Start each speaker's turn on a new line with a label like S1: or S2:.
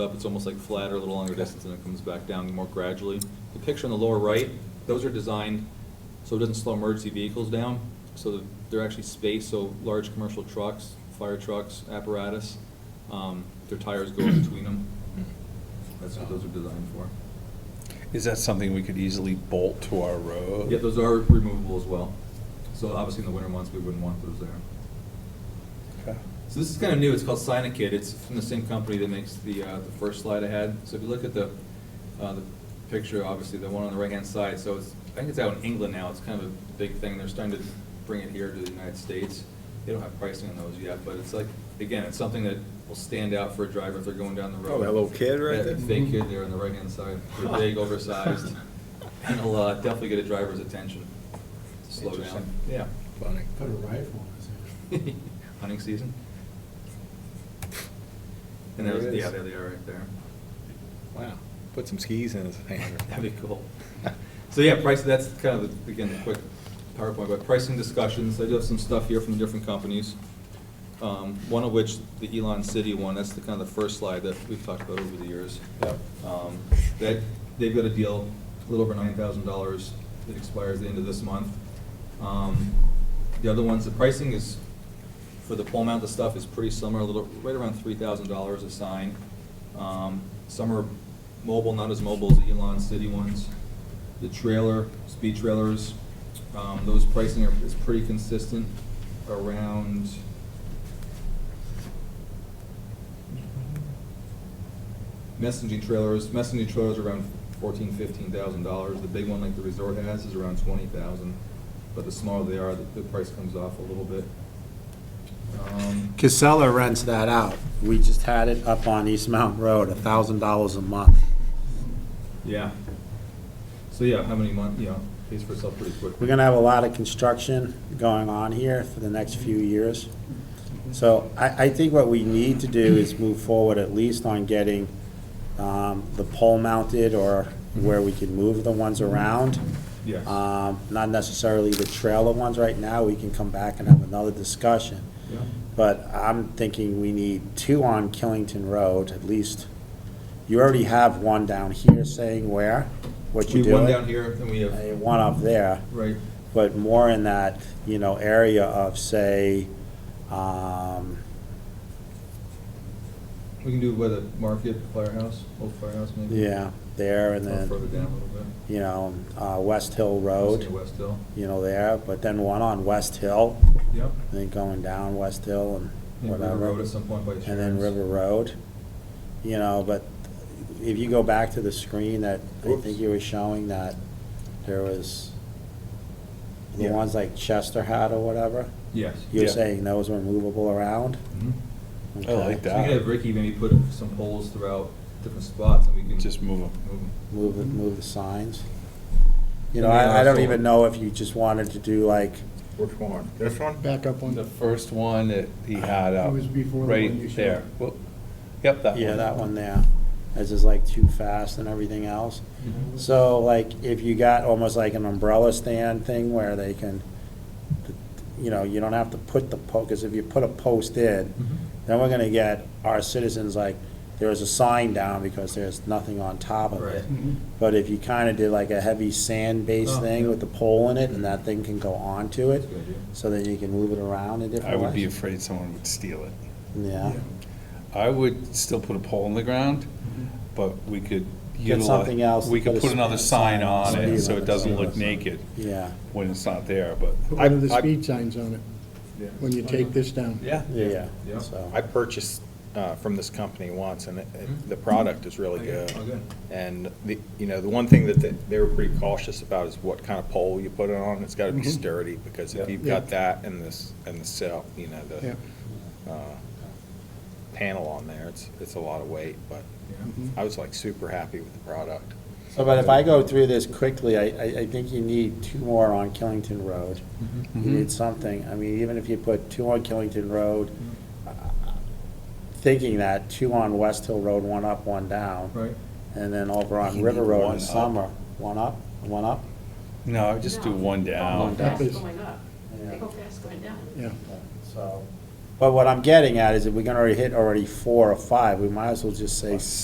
S1: up, it's almost like flat or a little longer distance, and it comes back down more gradually. The picture on the lower right, those are designed so it doesn't slow emergency vehicles down, so that they're actually spaced, so large commercial trucks, fire trucks, apparatus, um, their tires go in between them. That's what those are designed for.
S2: Is that something we could easily bolt to our road?
S1: Yeah, those are removable as well. So obviously in the winter months, we wouldn't want those there.
S2: Okay.
S1: So this is kind of new, it's called Sinakid, it's from the same company that makes the, uh, the first slide I had. So if you look at the, uh, the picture, obviously, the one on the right-hand side, so it's, I think it's out in England now, it's kind of a big thing, they're starting to bring it here to the United States. They don't have pricing on those yet, but it's like, again, it's something that will stand out for a driver if they're going down the road.
S3: Oh, that little kid right
S1: That
S3: there?
S1: Fake kid there on the right-hand side, they're big, oversized, and it'll uh, definitely get a driver's attention, slow down,
S3: Interesting.
S1: yeah.
S3: Funny.
S4: Put a rifle on his head.
S1: hunting season. And there was,
S3: There it is.
S1: yeah, there they are right there.
S3: Wow. Put some skis in his hand.
S1: That'd be cool. So yeah, price, that's kind of, the- again, the quick PowerPoint, but pricing discussions, I do have some stuff here from different companies. Um, One of which, the Elon City one, that's the kind of the first slide that we've talked about over the years.
S3: Yep.
S1: Um, That, they've got a deal, a little over nine thousand dollars, that expires the end of this month. Um, The other ones, the pricing is, for the pole mount, the stuff is pretty similar, a little, right around three thousand dollars a sign. Um, Some are mobile, not as mobile as the Elon City ones. The trailer, speed trailers, um, those pricing are, is pretty consistent, around, messaging trailers, messaging trailers are around fourteen, fifteen thousand dollars. The big one like the resort has is around twenty thousand, but the smaller they are, the, the price comes off a little bit. Um,
S5: Casella rents that out. We just had it up on East Mountain Road, a thousand dollars a month.
S1: Yeah. So yeah, how many month, you know, pays for itself pretty quickly.
S5: We're gonna have a lot of construction going on here for the next few years. So I, I think what we need to do is move forward at least on getting um, the pole mounted or where we can move the ones around.
S1: Yes.
S5: Um, Not necessarily the trailer ones right now. We can come back and have another discussion.
S1: Yeah.
S5: But I'm thinking we need two on Killington Road, at least. You already have one down here saying where, what
S1: We
S5: you're
S1: have
S5: doing.
S1: one down here, and we have,
S5: Uh, One up there,
S1: right,
S5: but more in that, you know, area of, say, um,
S1: we can do by the market, firehouse, old firehouse maybe.
S5: yeah, there and
S1: Or further
S5: then,
S1: down a little bit.
S5: you know, uh, West Hill
S1: Say
S5: Road,
S1: West Hill.
S5: you know, there, but then one on West Hill,
S1: Yep.
S5: and then going down West Hill and
S1: And River
S5: whatever.
S1: Road at some point by Sharon's.
S5: and then River Road, you know, but if you go back to the screen that, I
S1: Whoops.
S5: think you were showing that there was the
S1: Yeah.
S5: ones like Chester had or whatever,
S1: Yes.
S5: you're
S2: Yeah.
S5: saying those were movable around?
S1: Mhm.
S2: I
S5: Okay.
S2: like
S1: So we
S2: that.
S1: could have Ricky maybe put some poles throughout different spots, and we can.
S2: Just move 'em.
S1: Move 'em.
S5: Move, the- move the signs. You know,
S1: And then
S5: I, I don't
S1: also-
S5: even know if you just wanted to do like,
S3: Which one? This one?
S4: Back up on,
S2: The first one that he had up,
S4: It was before the one you
S2: right
S4: showed.
S2: there. Well, Yep, that one.
S5: yeah, that one there, as is like too fast and everything else.
S1: Mm-hmm.
S5: So like, if you got almost like an umbrella stand thing where they can, you know, you don't have to put the po, because if you put a post in, then we're gonna get our citizens like, there is a sign down because there's nothing on top of
S1: Right.
S5: it. But if you kinda did like a heavy
S1: Oh,
S5: sand-based
S1: yeah.
S5: thing with the pole in it, and that thing can go onto it,
S1: That's a good idea.
S5: so that you can move it around in
S2: I
S5: different ways.
S2: would be afraid someone would steal it.
S5: Yeah,
S2: I would still put a pole in the ground, but we could
S5: Get
S2: utilize.
S5: something else
S2: We
S5: to
S2: could
S5: put a
S2: put another sign
S5: sign,
S2: on it,
S5: speed
S2: so it
S5: limit
S2: doesn't
S5: sign.
S2: look naked
S5: yeah,
S2: when it's not there, but.
S4: put
S2: I-
S4: one of the
S2: I-
S4: speed signs on it
S1: Yeah.
S4: when you take this down.
S2: Yeah.
S5: yeah,
S1: Yeah.
S5: so,
S3: I purchased uh, from this company once, and it- it- the product is really
S1: Okay,
S3: good.
S1: oh, good.
S3: And the, you know, the one thing that they- they were pretty cautious about is what kind of pole you put it on. It's got to be sturdy, because if
S1: Yeah.
S3: you've
S4: Yeah.
S3: got that and this, and the cell, you know,
S4: Yeah.
S3: the uh, panel on there, it's, it's a lot of weight, but
S1: Yeah.
S3: I was like super happy with the product.
S5: so, but if I go through this quickly, I, I, I think you need two more on Killington Road. You
S2: Mhm.
S5: need something, I mean, even if you put two on Killington Road, uh, thinking that, two on West Hill Road, one up, one down,
S1: Right,
S5: and then over on
S2: You
S5: River
S2: need
S5: Road
S2: one
S5: in the
S2: up.
S5: summer, one up, one up?
S2: No, I would just do
S6: No.
S2: one
S6: Go
S2: down.
S4: down.
S6: fast going up.
S5: Yeah.
S6: Go fast going down.
S4: Yeah.
S5: So, but what I'm getting at is if we're gonna already hit already four or five, we might as well just say